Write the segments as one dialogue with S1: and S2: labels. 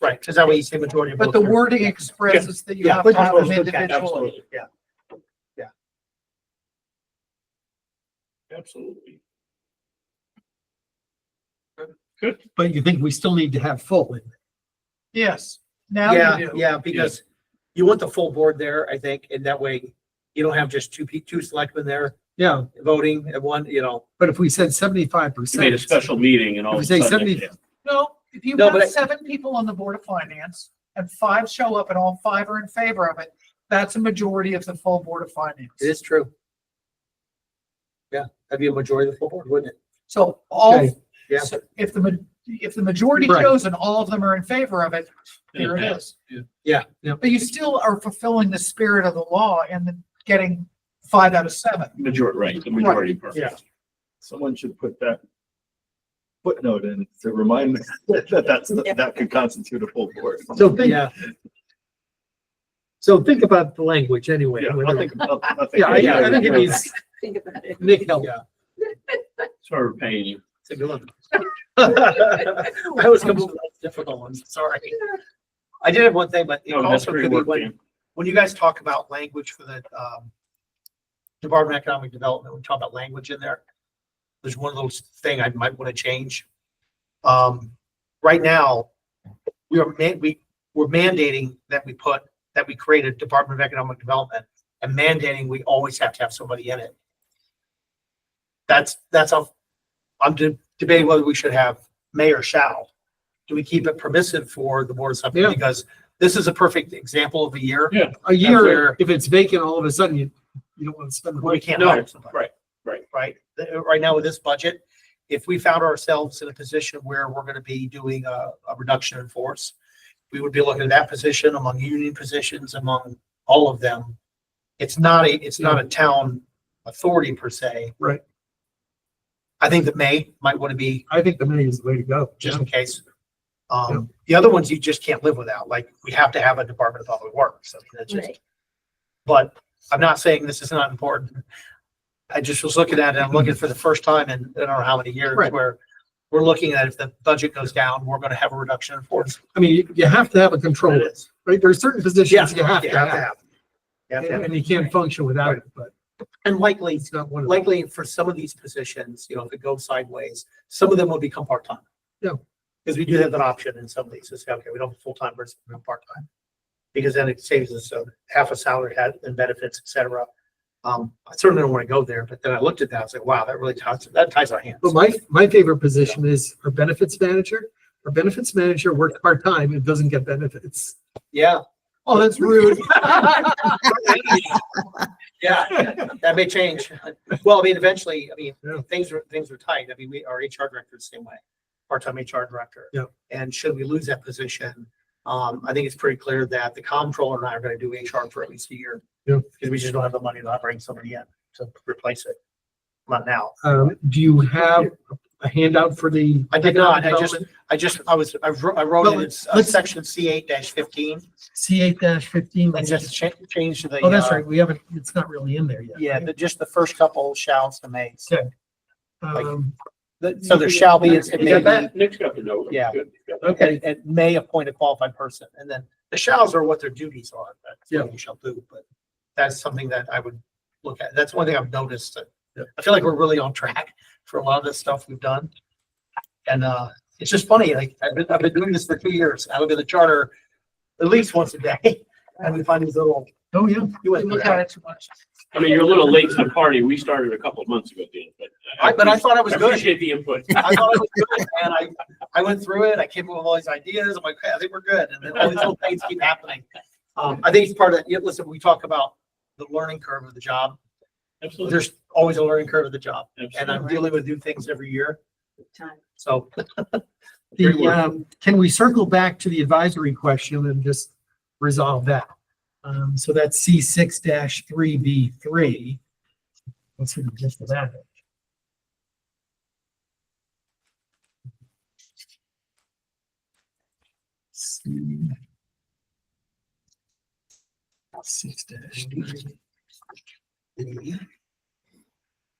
S1: Right, because that way you say majority of.
S2: But the
S1: votes are-
S2: wording expresses that you
S1: Yeah,
S2: have to have them
S1: absolutely,
S2: individually.
S1: absolutely, Yeah. Yeah.
S3: Absolutely.
S4: But you think we still need to have full in
S2: Yes, now you
S1: Yeah,
S2: do.
S1: yeah, because you want the full board there, I think, and that way you don't have just two, pe- two selectmen there
S4: Yeah,
S1: voting and one, you know.
S4: but if we said seventy-five
S3: You
S4: percent.
S3: made a special meeting and all.
S4: If
S3: of a
S4: we say
S3: sudden it-
S4: 70
S2: No, if you
S1: No, but I-
S2: have seven people on the Board of Finance and five show up and all five are in favor of it, that's a majority of the full Board of
S1: It
S2: Finance.
S1: is true. Yeah, that'd be a majority of the full board, wouldn't it?
S2: So all,
S4: Okay,
S1: yeah.
S2: so if the, ma- if the majority
S4: Right.
S2: shows and all of them are in favor of it, there it
S3: Yeah.
S2: is.
S1: Yeah.
S4: Yeah.
S2: But you still are fulfilling the spirit of the law and then getting five out of seven.
S3: Majority, right, the majority part.
S1: Yeah.
S5: Someone should put that footnote in to remind me that that's, that could constitute a full board.
S4: So think,
S1: Yeah,
S4: so think about the language anyway.
S5: Yeah,
S4: when
S5: I'll
S4: we're-
S5: think about- I'll think
S4: Yeah, I,
S5: about
S4: I think it
S5: that.
S4: needs,
S6: think about it.
S4: Nick help.
S1: yeah.
S3: Sorry, we're paying you.
S1: It's a good one. I was coming up with difficult ones, sorry. I did have one thing, but it
S3: No, Oh, that's
S1: also
S3: great
S1: could be
S3: work,
S1: when,
S3: Dan.
S1: when you guys talk about language for the, um, Department of Economic Development, we talk about language in there. There's one little thing I might want to change. Um, right now, we are man, we, we're mandating that we put, that we create a Department of Economic Development and mandating we always have to have somebody in it. That's, that's how, I'm de- debating whether we should have may or shall. Do we keep it permissive for the board of selectmen?
S4: Yeah.
S1: Because this is a perfect example of a year
S4: A year,
S1: Where-
S4: if it's vacant, all of a sudden you, you don't want to spend the
S1: where we
S4: money.
S1: can't
S3: No,
S1: hire somebody.
S3: right, right.
S1: Right, The- right now with this budget, if we found ourselves in a position where we're gonna be doing a, a reduction in force, we would be looking at that position among union positions, among all of them. It's not a, it's not a town authority per se.
S4: Right.
S1: I think that may, might wanna be
S4: I think the money is the way to go.
S1: just in case. Um, the other ones you just can't live without, like, we have to have a Department of Public Works, I mean, that's just,
S6: Right.
S1: but I'm not saying this is not important. I just was looking at it, I'm looking for the first time in, I don't know how many years,
S4: Right.
S1: where we're looking at if the budget goes down, we're gonna have a reduction in force.
S4: I mean, you- you have to have a control,
S1: is.
S4: right? There are certain
S1: Yeah,
S4: positions you
S1: you
S4: have to have.
S1: have. You have to
S4: And
S1: have.
S4: and you can't function without it, but
S1: And likely,
S4: it's not one of them.
S1: likely for some of these positions, you know, if it goes sideways, some of them will become part-time.
S4: Yeah.
S1: Because we do have that option in some of these, it's, okay, we don't have full-time versus part-time. Because then it saves us uh, half a salary had and benefits, et cetera. Um, I certainly don't want to go there, but then I looked at that, I was like, wow, that really ties, that ties our hands.
S4: But my, my favorite position is our benefits manager. Our benefits manager works part-time and doesn't get benefits.
S1: Yeah,
S2: Oh, that's rude.
S1: yeah, that may change. Well, I mean, eventually, I mean,
S4: Yeah.
S1: things are, things are tight. I mean, we, our HR director is the same way, part-time HR director.
S4: Yeah.
S1: And should we lose that position, um, I think it's pretty clear that the comptroller and I are gonna do HR for at least a year.
S4: Yeah.
S1: Because we just don't have the money to not bring somebody in to replace it. Not now.
S4: Um, do you have a handout for the?
S1: I did not. I just-
S4: Development?
S1: I just, I was, I wrote, I wrote
S4: Well,
S1: it, it's uh,
S4: let's-
S1: section C eight fifteen,
S4: C eight dash fifteen.
S1: and just cha- change to the.
S4: Oh, that's
S1: uh,
S4: right. We haven't, it's not really in there yet.
S1: Yeah, the- just the first couple shalls to makes.
S4: Okay. Um,
S1: So there shall be, it's- it
S3: You
S1: may
S3: got
S1: be,
S3: that? Nick's got the note.
S1: Yeah.
S3: Good. Got that.
S4: okay,
S1: it may appoint a qualified person, and then the shalls are what their duties are, that's what you shall do, but that's something that I would look at, that's one thing I've noticed, that-
S4: Yeah.
S1: I feel like we're really on track for a lot of this stuff we've done. And, uh, it's just funny, like, I've been, I've been doing this for two years, I look at the charter at least once a day, and we find these little.
S4: oh, yeah.
S1: you
S2: We
S1: went through
S2: look at
S1: that.
S2: it too much.
S3: I mean, you're a little late to the party. We started a couple of months ago, Dan, but.
S1: I- But I thought I was
S3: I
S1: good.
S3: Appreciate the input.
S1: I thought it was good, and I, I went through it, I came up with all these ideas, I'm like, "Hey, I think we're good, and then all these little things keep happening. Um, I think it's part of, yeah, listen, we talk about the learning curve of the job,
S3: Absolutely.
S1: there's always a learning curve of the job, and
S3: Absolutely.
S1: I'm dealing with new things every year,
S6: Time.
S1: so. Great
S4: The,
S1: work.
S4: um, can we circle back to the advisory question and just resolve that? Um, so that's C six dash three B three. Let's see the gist of that. Six dash.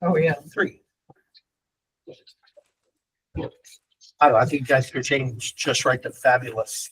S2: Oh, yeah.
S1: Three. I don't know, I think you guys could change just right to fabulous.